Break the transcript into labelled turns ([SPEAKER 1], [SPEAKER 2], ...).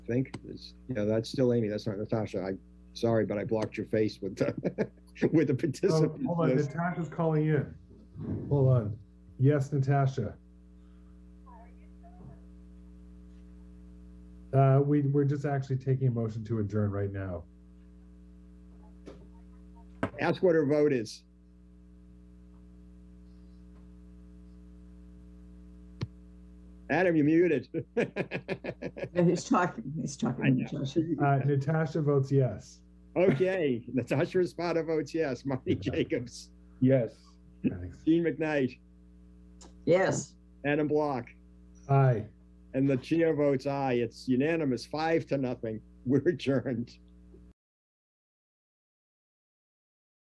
[SPEAKER 1] think. It's, you know, that's still Amy. That's not Natasha. I, sorry, but I blocked your face with the, with the
[SPEAKER 2] Oh,
[SPEAKER 1] participant
[SPEAKER 2] Hold on,
[SPEAKER 1] list.
[SPEAKER 2] Natasha's calling in. Hold on. Yes, Natasha. Uh, we, we're just actually taking a motion to adjourn right now.
[SPEAKER 1] Ask what her vote is. Adam, you're muted.
[SPEAKER 3] And he's talking, he's
[SPEAKER 1] I
[SPEAKER 3] talking.
[SPEAKER 1] know.
[SPEAKER 3] to Josh.
[SPEAKER 2] Uh, Natasha votes yes.
[SPEAKER 1] Okay, Natasha Espada votes yes. Marty Jacobs,
[SPEAKER 4] Yes.
[SPEAKER 2] Thanks.
[SPEAKER 1] Gene McKnight,
[SPEAKER 3] Yes,
[SPEAKER 1] Adam Block,
[SPEAKER 2] Aye.
[SPEAKER 1] and the chair votes aye. It's unanimous, five to nothing. We're adjourned.